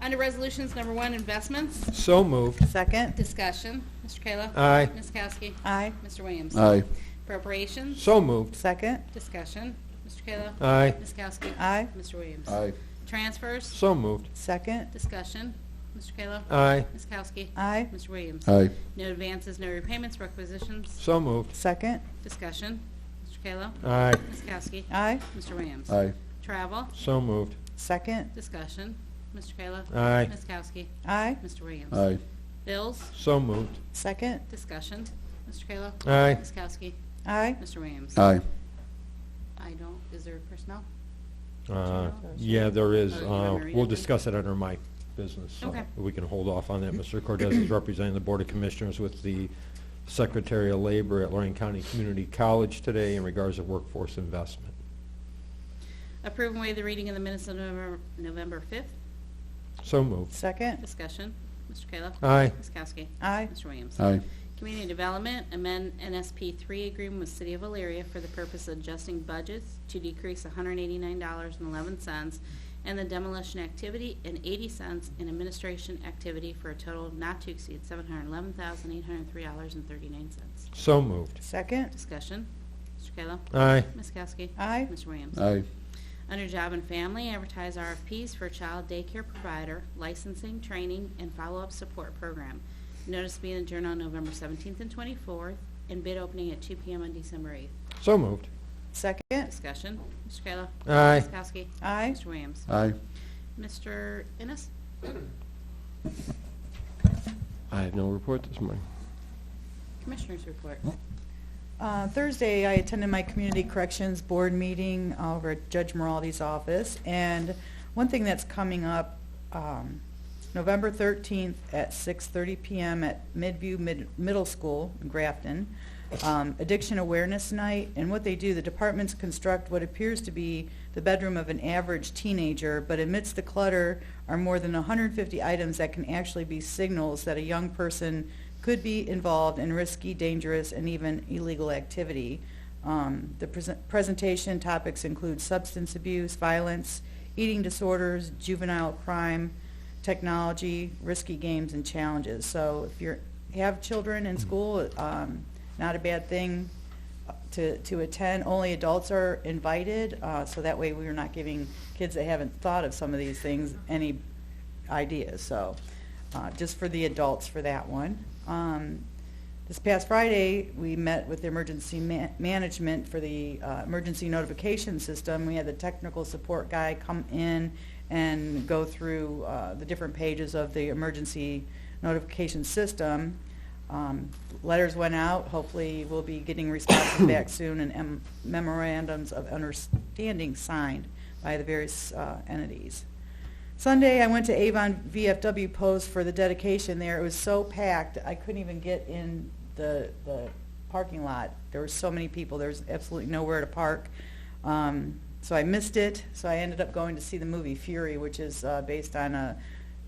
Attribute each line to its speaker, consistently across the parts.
Speaker 1: Under Resolutions Number One, Investments,
Speaker 2: So moved.
Speaker 3: Second.
Speaker 1: discussion. Mr. Kayla.
Speaker 4: Uh.
Speaker 2: Aye.
Speaker 1: Ms. Kowski.
Speaker 3: Aye.
Speaker 1: Mr. Williams.
Speaker 4: aye,
Speaker 1: Appropriations,
Speaker 2: So moved.
Speaker 3: Second.
Speaker 1: discussion. Mr. Kayla.
Speaker 2: Aye.
Speaker 1: Ms. Kowski.
Speaker 3: Aye.
Speaker 1: Mr. Williams.
Speaker 4: Uh. aye,
Speaker 1: Transfers,
Speaker 2: So moved.
Speaker 3: Second.
Speaker 1: discussion. Mr. Kayla.
Speaker 4: Uh.
Speaker 2: Aye.
Speaker 1: Ms. Kowski.
Speaker 3: Aye.
Speaker 1: Mr. Williams.
Speaker 4: aye,
Speaker 1: No advances, no repayments, requisitions,
Speaker 2: So moved.
Speaker 3: Second.
Speaker 1: discussion. Mr. Kayla.
Speaker 2: Aye.
Speaker 1: Ms. Kowski.
Speaker 3: Aye.
Speaker 1: Mr. Williams.
Speaker 4: Uh. aye,
Speaker 1: Travel,
Speaker 2: So moved.
Speaker 3: Second.
Speaker 1: discussion. Mr. Kayla.
Speaker 2: Aye.
Speaker 1: Ms. Kowski.
Speaker 3: Aye.
Speaker 1: Mr. Williams.
Speaker 4: aye,
Speaker 1: Bills,
Speaker 2: So moved.
Speaker 3: Second.
Speaker 1: discussion. Mr. Kayla.
Speaker 2: Aye.
Speaker 1: Ms. Kowski.
Speaker 3: Aye.
Speaker 1: Mr. Williams.
Speaker 4: aye,
Speaker 1: I don't, is there personnel?
Speaker 2: Uh, Yeah, there is.
Speaker 1: Oh, you wanna
Speaker 2: Uh,
Speaker 1: read
Speaker 2: We'll
Speaker 1: it?
Speaker 2: discuss it under my business. so
Speaker 1: Okay.
Speaker 2: We can hold off on that. Mr. Cortez is representing the Board of Commissioners with the Secretary of Labor at Lorraine County Community College today in regards to workforce investment.
Speaker 1: Approve and waive the reading of the minutes of November- November 5th.
Speaker 2: So moved.
Speaker 3: Second.
Speaker 1: Discussion. Mr. Kayla.
Speaker 2: Aye.
Speaker 1: Ms. Kowski.
Speaker 3: Aye.
Speaker 1: Mr. Williams.
Speaker 4: aye,
Speaker 1: Community Development, amend NSP 3 agreement with City of Elyria for the purpose of adjusting budgets to decrease $189.11 and the demolition activity and 80 cents in administration activity for a total not to exceed $711,803.39.
Speaker 2: So moved.
Speaker 3: Second.
Speaker 1: Discussion. Mr. Kayla.
Speaker 2: Aye.
Speaker 1: Ms. Kowski.
Speaker 3: Aye.
Speaker 1: Mr. Williams.
Speaker 4: aye,
Speaker 1: Under Job and Family, advertise RFPs for child daycare provider, licensing, training, and follow-up support program. Notice being adjourned on November 17th and 24th, and bid opening at 2 PM on December 8th.
Speaker 2: So moved.
Speaker 3: Second.
Speaker 1: Discussion, Mr. Kayla.
Speaker 2: Aye.
Speaker 1: Ms. Kowski.
Speaker 3: Aye.
Speaker 1: Mr. Williams.
Speaker 4: aye.
Speaker 1: Mr. Ennis?
Speaker 4: I have no report this morning.
Speaker 1: Commissioners report.
Speaker 3: Uh, Thursday, I attended my Community Corrections Board meeting over at Judge Moraldi's office, and one thing that's coming up, um, November 13th at 6:30 PM at Midview Mid- Middle School in Grafton, um, Addiction Awareness Night, and what they do, the departments construct what appears to be the bedroom of an average teenager, but amidst the clutter are more than 150 items that can actually be signals that a young person could be involved in risky, dangerous, and even illegal activity. Um, the present presentation topics include substance abuse, violence, eating disorders, juvenile crime, technology, risky games, and challenges. So if you have children in school, um, not a bad thing to, to attend. Only adults are invited, uh, so that way we are not giving kids that haven't thought of some of these things any ideas. So uh, just for the adults for that one. Um, this past Friday, we met with the emergency ma- management for the uh, emergency notification system. We had the technical support guy come in and go through uh, the different pages of the emergency notification system. Um, letters went out. Hopefully, we'll be getting responses back soon and em- memorandums of understanding signed by the various uh, entities. Sunday, I went to Avon VFW Post for the dedication there. It was so packed, I couldn't even get in the, the parking lot. There were so many people, there was absolutely nowhere to park. Um, so I missed it, so I ended up going to see the movie Fury, which is uh, based on a,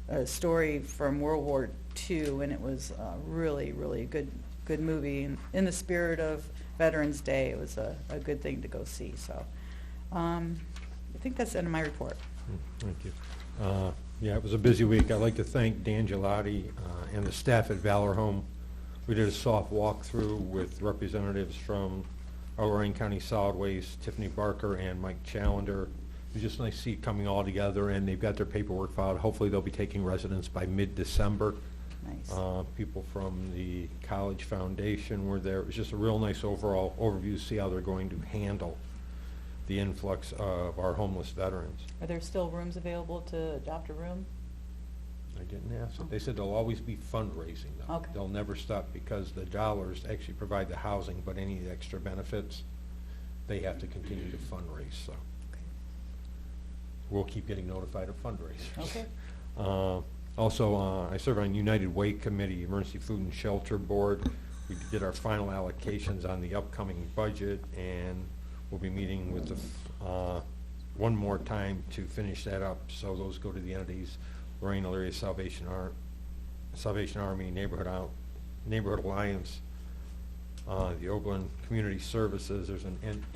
Speaker 3: a story from World War II, and it was uh, really, really a good, good movie. And in the spirit of Veterans Day, it was a, a good thing to go see. So um, I think that's the end of my report.
Speaker 2: Mm, Thank you. Uh, Yeah, it was a busy week. I'd like to thank Dan Gelati uh, and the staff at Valor Home. We did a soft walkthrough with representatives from our Lorraine County Solid Waste, Tiffany Barker and Mike Challander. It was just nice to see it coming all together, and they've got their paperwork filed. Hopefully, they'll be taking residence by mid-December.
Speaker 3: Nice.
Speaker 2: Uh, People from the College Foundation were there. It was just a real nice overall overview, see how they're going to handle the influx of our homeless veterans.
Speaker 3: Are there still rooms available to adopt a room?
Speaker 2: I didn't ask. They said there'll always be fundraising, though.
Speaker 3: Okay.
Speaker 2: They'll never stop because the dollars actually provide the housing, but any of the extra benefits, they have to continue to fundraise, so we'll keep getting notified of fundraisers.
Speaker 3: Okay.
Speaker 2: Uh, Also, uh, I serve on United Way Committee, Emergency Food and Shelter Board. We did our final allocations on the upcoming budget, and we'll be meeting with the, f- uh, one more time to finish that up. So those go to the entities, Lorraine Elyria Salvation Ar, Salvation Army, Neighborhood Out, Neighborhood Alliance, uh, the Oberlin Community Services, there's an en-